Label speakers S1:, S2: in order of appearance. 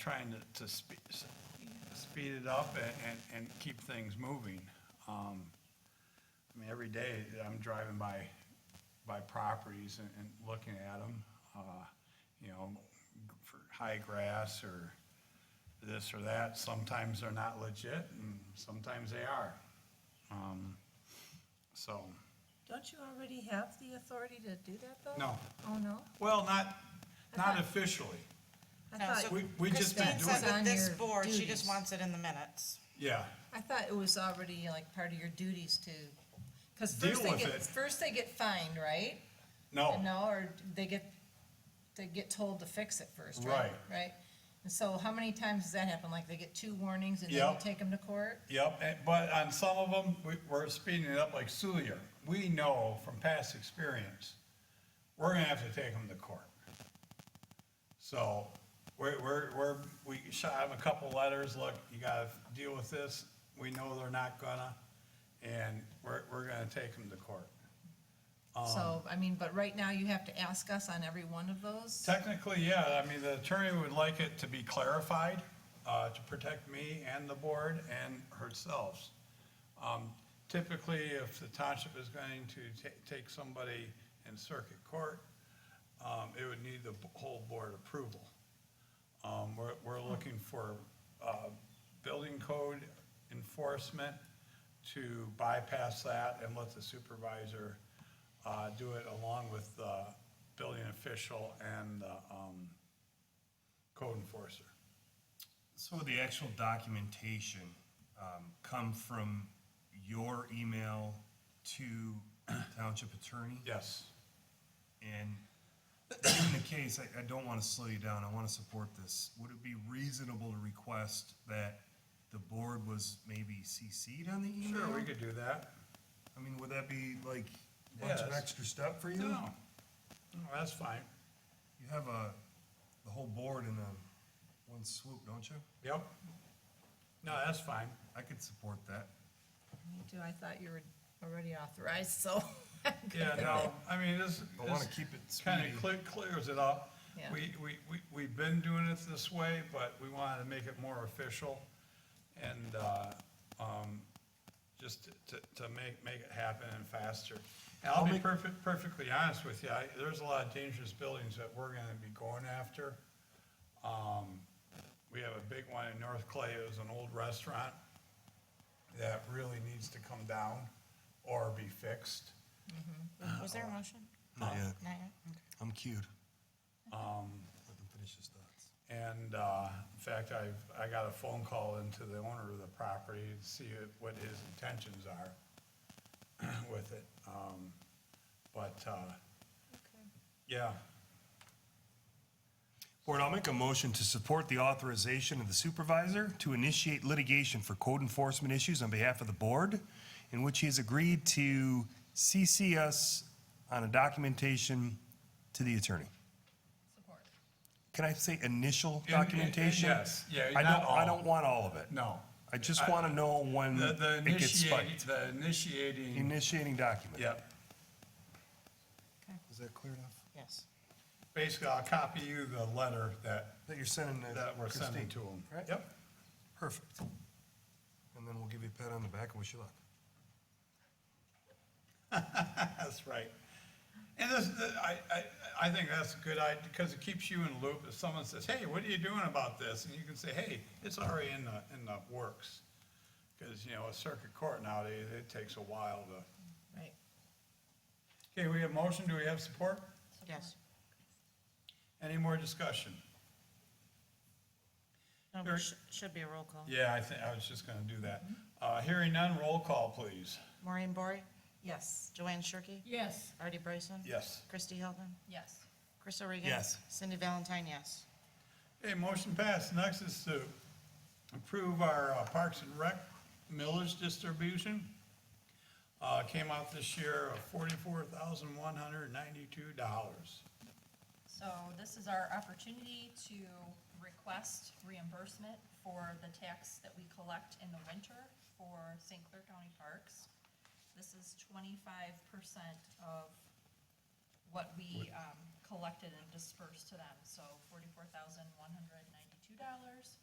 S1: trying to, to speed, speed it up and, and, and keep things moving. Um, I mean, every day I'm driving by, by properties and, and looking at them, uh, you know, for high grass or this or that. Sometimes they're not legit and sometimes they are. Um, so,
S2: Don't you already have the authority to do that, though?
S1: no,
S2: Oh, no?
S1: well, not, not
S2: thought-
S1: officially.
S2: I
S3: No, so
S2: thought,
S1: We- we just been
S3: Christine
S1: doing
S3: said
S1: it.
S3: that this
S2: On your
S3: board, she
S2: duties.
S3: just wants it in the minutes.
S1: Yeah,
S2: I thought it was already like part of your duties to, because
S1: Deal
S2: first they
S1: with
S2: get,
S1: it.
S2: first they get fined, right?
S1: no.
S2: No, or they get, they get told to fix it first, right?
S1: Right.
S2: Right? And so how many times does that happen? Like they get two warnings and then you
S1: Yep.
S2: take them to court?
S1: Yep, and- but on some of them, we, we're speeding it up like Sulier. We know from past experience, we're gonna have to take them to court. So, we're, we're, we're, we shot them a couple letters, look, you gotta deal with this, we know they're not gonna, and we're, we're gonna take them to court. Um,
S2: So, I mean, but right now you have to ask us on every one of those?
S1: Technically, yeah, I mean, the attorney would like it to be clarified, uh, to protect me and the board and herself. Um, typically, if the township is going to ta- take somebody in circuit court, um, it would need the b- whole board approval. Um, we're, we're looking for, uh, building code enforcement to bypass that and let the supervisor, uh, do it along with the building official and, the, um, code enforcer.
S4: So would the actual documentation um, come from your email to township attorney?
S1: Yes,
S4: And in the case, I, I don't want to slow you down, I want to support this. Would it be reasonable to request that the board was maybe CC'd on the email?
S1: sure, we could do that.
S4: I mean, would that be like a bunch of
S1: Yes.
S4: extra step for you?
S1: No, no, that's fine.
S4: You have a, the whole board in a, one swoop, don't you?
S1: Yep. No, that's fine.
S4: I could support that.
S2: Me too. I thought you were already authorized, so.
S1: Yeah, no, I mean, this,
S4: I want to keep it
S1: kind
S4: speedy.
S1: of clear, clears it up.
S2: Yeah.
S1: We, we, we, we've been doing it this way, but we wanted to make it more official and, uh, um, just to, to make, make it happen and faster. And I'll be perfect, perfectly honest with you, I, there's a lot of dangerous buildings that we're gonna be going after. Um, we have a big one in North Clay, it was an old restaurant that really needs to come down or be fixed.
S3: Was there a motion?
S4: Not yet.
S3: Not yet? Okay.
S4: I'm cued. Um. Let them finish his thoughts.
S1: And, uh, in fact, I've, I got a phone call into the owner of the property to see what his intentions are with it. Um, but, uh, yeah,
S4: Board, I'll make a motion to support the authorization of the supervisor to initiate litigation for code enforcement issues on behalf of the board, in which he has agreed to CC us on a documentation to the attorney.
S2: Support.
S4: Can I say initial
S1: In- in- in-
S4: documentation?
S1: yes. Yeah,
S4: I
S1: not
S4: don't, I
S1: all.
S4: don't want all of it.
S1: no.
S4: I just want to know when
S1: The, the
S4: Mm, it gets
S1: initiating,
S4: spiked.
S1: the initiating,
S4: Initiating document.
S1: yeah.
S4: Is that clear enough?
S3: Yes.
S1: Basically, I'll copy you the letter that,
S4: That you're sending to
S1: that we're sending
S4: Christine.
S1: to him.
S4: Right?
S1: Yep.
S4: Perfect. And then we'll give you a pat on the back and wish you luck.
S1: That's right. And this, th- I, I, I think that's a good idea, because it keeps you in the loop. If someone says, hey, what are you doing about this? And you can say, hey, it's already in the, in the works. Because, you know, a circuit court nowadays, it takes a while to.
S2: Right.
S1: Okay, we have motion, do we have support?
S3: Yes.
S1: Any more discussion?
S3: No, but sh- Should be a roll call.
S1: Yeah, I think, I was just gonna do that. Uh, hearing none, roll call, please.
S3: Maureen Bory,
S2: Yes.
S3: Joanne Shirkey,
S2: Yes.
S3: Artie Bryson.
S1: Yes.
S3: Christy Hilton,
S2: Yes.
S3: Chris O'Regan.
S4: Yes.
S3: Cindy Valentine, yes.
S1: Okay, motion passed. Next is to approve our uh, Parks and Rec millage distribution. Uh, came out this year of forty-four thousand one hundred ninety-two dollars.
S5: So this is our opportunity to request reimbursement for the tax that we collect in the winter for St. Clair County Parks. This is twenty-five percent of what we um, collected and dispersed to them, so forty-four thousand one hundred ninety-two
S2: dollars.